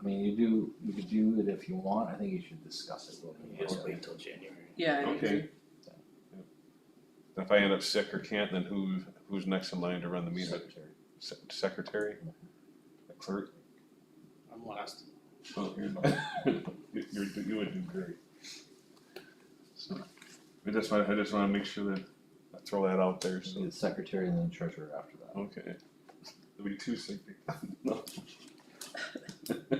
I mean, you do, you could do it if you want, I think you should discuss it a little bit. Just more. wait till January. Yeah, I agree. Okay. If I end up sick or can't, then who, who's next in line to run the meeting? Secretary. Se- Secretary? The Clerk? I'm last. Oh, you're not. You- You're, you would do great. So, I just want, I just wanna make sure that, I throw that out there, Be so, the secretary and then treasurer after that. okay. There'll be two sick people. No.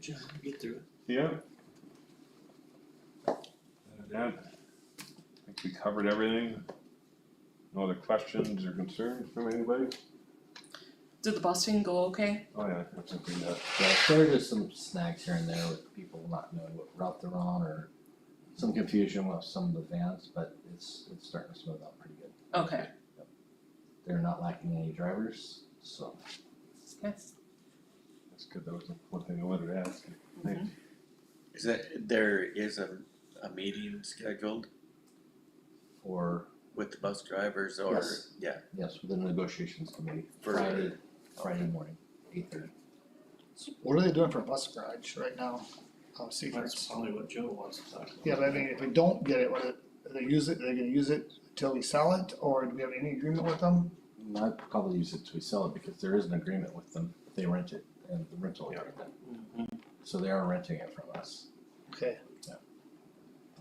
John, get through it. Yeah. Other than that, I think we covered everything. No other questions or concerns from anybody? Did the busing go okay? Oh, yeah, I think we got Yeah, so there are just some snags here and there with people not knowing what route they're on or some confusion with some of the vans, but it's, it's starting to smooth out pretty good. Okay, They're not lacking any drivers, so. yes. That's good, that was the one thing I wanted to ask. Is that, there is a, a meeting scheduled Or, with the bus drivers or, Yes. yeah, yes, with the negotiations committee, For- Friday, Friday morning, eight thirty. What are they doing for a bus garage right now? Um, That's Seaford's. probably what Joe wants to talk about. Yeah, but I mean, if we don't get it, what, are they use it, they're gonna use it till we sell it, or do we have any agreement with them? I'd probably use it to sell it because there is an agreement with them, they rent it and the rental agreement, Mhm. so they are renting it from us. Okay,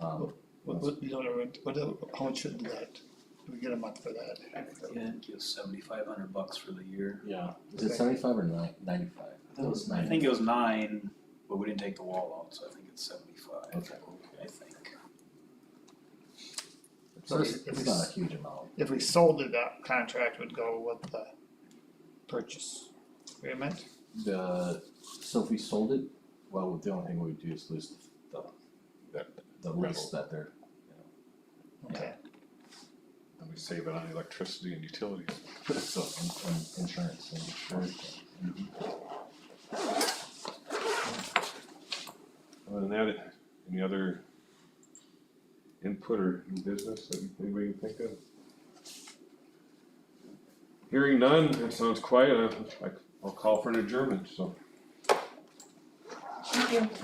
Um, what, what, you don't know, what, how much should that, do we get a month for that? Yeah, I think it was seventy-five hundred bucks for the year. yeah, is it seventy-five or nine, ninety-five? I think it was, I think it was nine, but we didn't take the wall out, so I think it's seventy-five, Okay. I think. So it's, it's not a huge amount. If we sold it, that contract would go with the purchase agreement, The, so if we sold it, well, the only thing we would do is lose the, the, the lease that they're, okay? And we save it on electricity and utilities. so, and, and insurance and insurance. Other than that, any other input or new business that anybody can think of? Hearing none, it sounds quiet, I, I- I'll call for an adjournment, so. Thank you. Did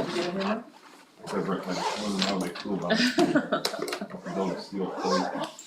you get everyone? I wrote my, I wrote my toolbox. I'll go steal it.